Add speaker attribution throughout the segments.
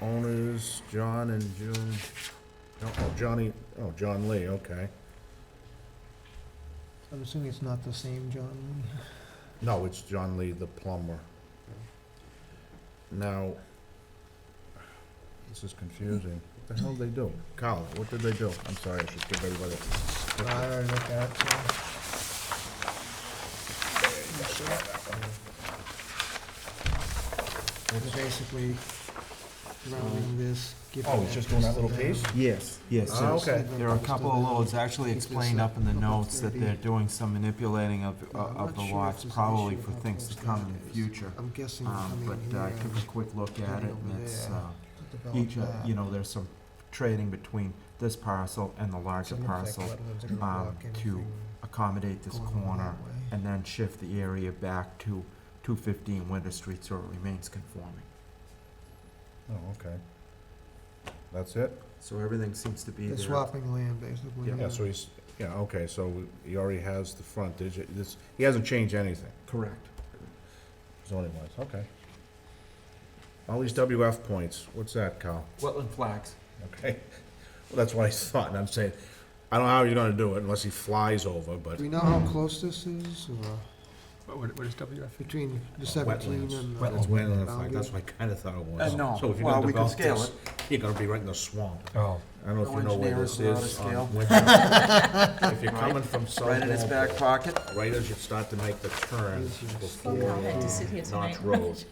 Speaker 1: owners, John and June, no, oh, Johnny, oh, John Lee, okay.
Speaker 2: I'm assuming it's not the same John
Speaker 1: No, it's John Lee, the plumber. Now, this is confusing. What the hell did they do? Carl, what did they do? I'm sorry, I should give everybody.
Speaker 2: Lee. I already looked at it, so. It's basically rounding this. giving
Speaker 1: Oh, it's just doing that little
Speaker 2: to them.
Speaker 1: piece?
Speaker 3: Yes, yes.
Speaker 1: Ah,
Speaker 3: there's-
Speaker 1: okay.
Speaker 3: There are a couple of loads actually explained up in the notes that they're doing some manipulating of,
Speaker 2: Yeah, I'm
Speaker 3: of the
Speaker 2: not sure if
Speaker 3: lots,
Speaker 2: there's an
Speaker 3: probably
Speaker 2: issue
Speaker 3: for
Speaker 2: how
Speaker 3: things to
Speaker 2: close
Speaker 3: come
Speaker 2: that
Speaker 3: in the
Speaker 2: is.
Speaker 3: future.
Speaker 2: I'm guessing
Speaker 3: Um,
Speaker 2: coming
Speaker 3: but I
Speaker 2: here
Speaker 3: took a quick look at it and it's,
Speaker 2: Yeah.
Speaker 3: uh,
Speaker 2: to develop
Speaker 3: each, uh,
Speaker 2: that.
Speaker 3: you know, there's some trading between this parcel and the larger
Speaker 2: Doesn't look like
Speaker 3: parcel.
Speaker 2: wetlands are gonna
Speaker 3: um,
Speaker 2: block
Speaker 3: to
Speaker 2: anything
Speaker 3: Accommodate this
Speaker 2: going on
Speaker 3: corner
Speaker 2: that way.
Speaker 3: and then shift the area back to two fifteen Winter Street so it remains conforming.
Speaker 1: Oh, okay. That's it?
Speaker 3: So everything seems to be
Speaker 2: They're
Speaker 3: there.
Speaker 2: swapping land, basically.
Speaker 3: Yeah.
Speaker 1: Yeah, so he's, yeah, okay, so he already has the frontage, It- this, he hasn't changed anything,
Speaker 3: Correct.
Speaker 1: zoning wise, okay. All these WF points, what's that, Cal?
Speaker 3: Wetland flags.
Speaker 1: Okay, well, that's what I thought, and I'm saying, I don't know how you're gonna do it unless he flies over, but,
Speaker 2: Do we know how close this is, or
Speaker 4: What, what is E? WF?
Speaker 2: between the
Speaker 1: Uh, Wetlands.
Speaker 2: seventeen and the?
Speaker 1: it's wetland, in fact,
Speaker 2: boundary?
Speaker 1: that's what I kinda thought it was.
Speaker 3: Uh, no.
Speaker 1: So if you're
Speaker 3: Well,
Speaker 1: gonna
Speaker 3: we can
Speaker 1: develop
Speaker 3: scale
Speaker 1: this, you're gonna be right in the swamp.
Speaker 4: Oh.
Speaker 1: I don't know if
Speaker 3: No
Speaker 1: you know where
Speaker 3: engineers
Speaker 1: this
Speaker 3: allowed
Speaker 1: is.
Speaker 3: to
Speaker 1: on
Speaker 3: scale.
Speaker 1: Winter. If you're
Speaker 3: Right.
Speaker 1: coming from South
Speaker 3: Right in his back
Speaker 1: Walpole,
Speaker 3: pocket.
Speaker 1: right as you start to make the turn
Speaker 2: Yes, yes.
Speaker 1: before
Speaker 2: Well, I had to
Speaker 5: sit here
Speaker 1: Notch
Speaker 5: tonight.
Speaker 1: Road.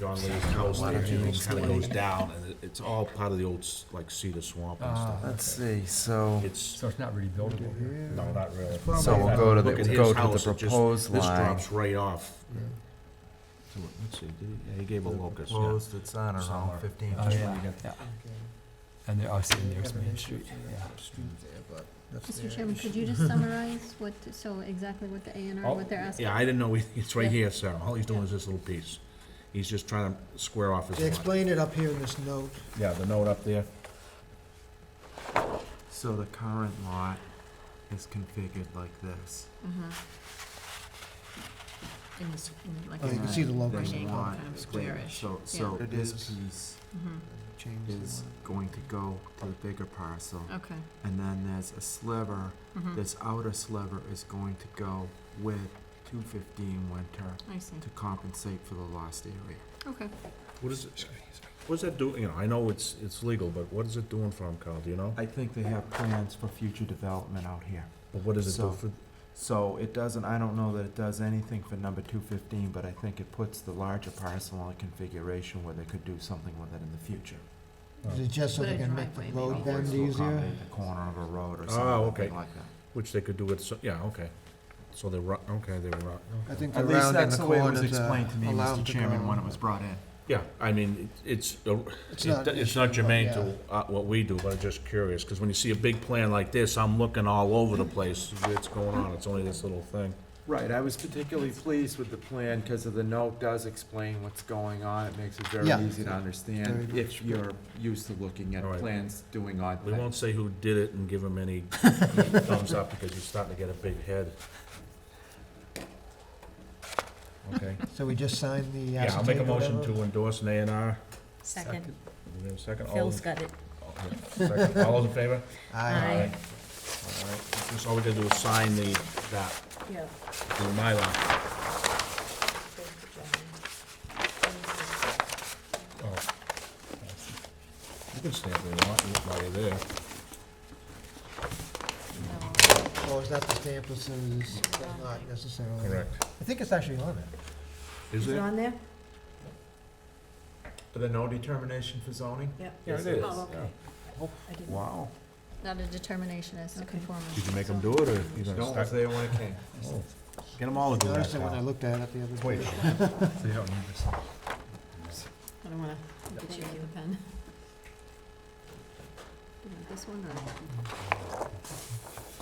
Speaker 1: John Lee's house,
Speaker 3: Why
Speaker 1: there,
Speaker 3: don't you
Speaker 1: it
Speaker 3: just
Speaker 1: kinda
Speaker 3: do it?
Speaker 1: goes down, and it- it's all part of the old, s- like cedar swamp and
Speaker 4: Ah.
Speaker 1: stuff.
Speaker 3: Let's see, so,
Speaker 1: It's,
Speaker 4: it's not really
Speaker 2: Over here.
Speaker 1: no, not really.
Speaker 2: probably-
Speaker 3: so we'll go to the,
Speaker 1: Look at
Speaker 3: we'll go
Speaker 1: his
Speaker 3: to
Speaker 1: house,
Speaker 3: the
Speaker 1: it just-
Speaker 3: proposed
Speaker 1: This
Speaker 3: line.
Speaker 1: drops right off.
Speaker 2: Yeah.
Speaker 1: So, Let's see, did he, yeah, he gave a locus, yeah.
Speaker 3: Proposed, it's on
Speaker 1: Somewhere.
Speaker 3: around fifteen.
Speaker 4: Oh, yeah, we got that.
Speaker 2: Okay.
Speaker 4: And they're, oh, see, and
Speaker 2: Have
Speaker 4: there's
Speaker 2: an
Speaker 4: Main
Speaker 2: entrance
Speaker 4: Street,
Speaker 2: to that
Speaker 4: yeah.
Speaker 2: Street there, but that's their
Speaker 5: Mr. Chairman,
Speaker 2: issue.
Speaker 5: could you just summarize what, so exactly what the A and
Speaker 1: Oh,
Speaker 5: R, what they're asking?
Speaker 1: Yeah, I didn't know, he- it's right
Speaker 5: Yeah.
Speaker 1: here, Sarah, all he's doing is this little piece. He's just trying to square off his
Speaker 2: They
Speaker 1: lot.
Speaker 2: explained it up here in this note.
Speaker 1: Yeah, the note up there.
Speaker 3: So the current lot is configured like this.
Speaker 5: Mhm. In this, in like.
Speaker 2: Oh, you can see the
Speaker 3: And
Speaker 2: locus.
Speaker 3: They
Speaker 5: Rectangle,
Speaker 3: want
Speaker 5: kind of
Speaker 3: square,
Speaker 5: squarish.
Speaker 3: so, so
Speaker 2: Yeah. It
Speaker 3: this
Speaker 2: is.
Speaker 3: piece
Speaker 5: Mhm.
Speaker 2: Change
Speaker 3: is going to go to the bigger parcel.
Speaker 5: Okay.
Speaker 3: And then there's a sliver,
Speaker 2: Hmm.
Speaker 5: Mhm.
Speaker 3: this outer sliver is going to go with two fifteen winter
Speaker 5: I see.
Speaker 3: to compensate for the lost area.
Speaker 5: Okay.
Speaker 1: What is it, what's that doing, you know, I know it's, it's legal, but what is it doing for him, Carl, do you know?
Speaker 3: I think they have plans for future development out here.
Speaker 1: But what does it do
Speaker 3: So-
Speaker 1: for,
Speaker 3: So it doesn't, I don't know that it does anything for number two fifteen, but I think it puts the larger parcel in a configuration where they could do something with it in the future.
Speaker 2: Is it just so
Speaker 5: Put
Speaker 2: they
Speaker 5: a
Speaker 2: can make
Speaker 5: driveway
Speaker 2: the
Speaker 5: maybe.
Speaker 2: road
Speaker 3: Or
Speaker 2: bend
Speaker 3: to
Speaker 2: easier?
Speaker 3: accommodate the corner of a road or
Speaker 1: Oh,
Speaker 3: something
Speaker 1: okay.
Speaker 3: like that.
Speaker 1: which they could do with, so- yeah, okay. So they're, ru- okay, they're, ru-
Speaker 2: I
Speaker 1: okay.
Speaker 2: think the
Speaker 3: At least
Speaker 2: round and
Speaker 3: that's
Speaker 2: the
Speaker 3: the way it was
Speaker 2: corners uh,
Speaker 3: explained to me,
Speaker 2: allow them
Speaker 3: Mr.
Speaker 2: to
Speaker 3: Chairman,
Speaker 2: grow.
Speaker 3: when it was brought in.
Speaker 1: Yeah, I mean, it- it's, a-
Speaker 2: It's
Speaker 1: it-
Speaker 2: not an
Speaker 1: it's not
Speaker 2: issue, but
Speaker 1: germane
Speaker 2: yeah.
Speaker 1: to uh, what we do, but I'm just curious, because when you see a big plan like this, I'm looking all over the place, what's going on, it's only this little thing.
Speaker 3: Right, I was particularly pleased with the plan because the note does explain what's going on. It makes it very
Speaker 2: Yeah.
Speaker 3: easy to understand
Speaker 2: Very
Speaker 3: if you're used to looking at
Speaker 1: All right.
Speaker 3: plans doing odd
Speaker 1: We won't
Speaker 3: things.
Speaker 1: say who did it and give him any thumbs up, because he's starting to get a big head. Okay.
Speaker 2: So we just sign the
Speaker 1: Yeah, I'll make a
Speaker 2: acetate or
Speaker 1: motion
Speaker 2: whatever?
Speaker 1: to endorse an A and R.
Speaker 5: Second.
Speaker 1: We have a second? Oh. All
Speaker 5: Phil's
Speaker 1: those-
Speaker 5: got it.
Speaker 1: all- second. All those in favor?
Speaker 2: Aye.
Speaker 5: Aye.
Speaker 1: All right, just all we gotta do is sign the, that,
Speaker 5: Yeah.
Speaker 1: the Mylar. Oh. You can stay if you want, you're already there.
Speaker 2: Or is that the stamp that says not necessarily? I think it's actually on it.
Speaker 1: Is it?
Speaker 5: on there?
Speaker 3: The no determination for zoning?
Speaker 5: Yeah.
Speaker 1: Yeah, it is. Oh, yeah.
Speaker 3: Wow.
Speaker 5: Not a determination as to conformity.
Speaker 1: Did you make him do it, or you
Speaker 3: No,
Speaker 1: gonna
Speaker 3: was
Speaker 1: start?
Speaker 3: there when it came.
Speaker 1: Oh. Get them all to do that,
Speaker 2: Noticed it when I
Speaker 1: Cal.
Speaker 2: looked at it the other day.
Speaker 1: Wait.
Speaker 4: So you don't need this.
Speaker 5: I don't wanna get you with a pen. You want This one or?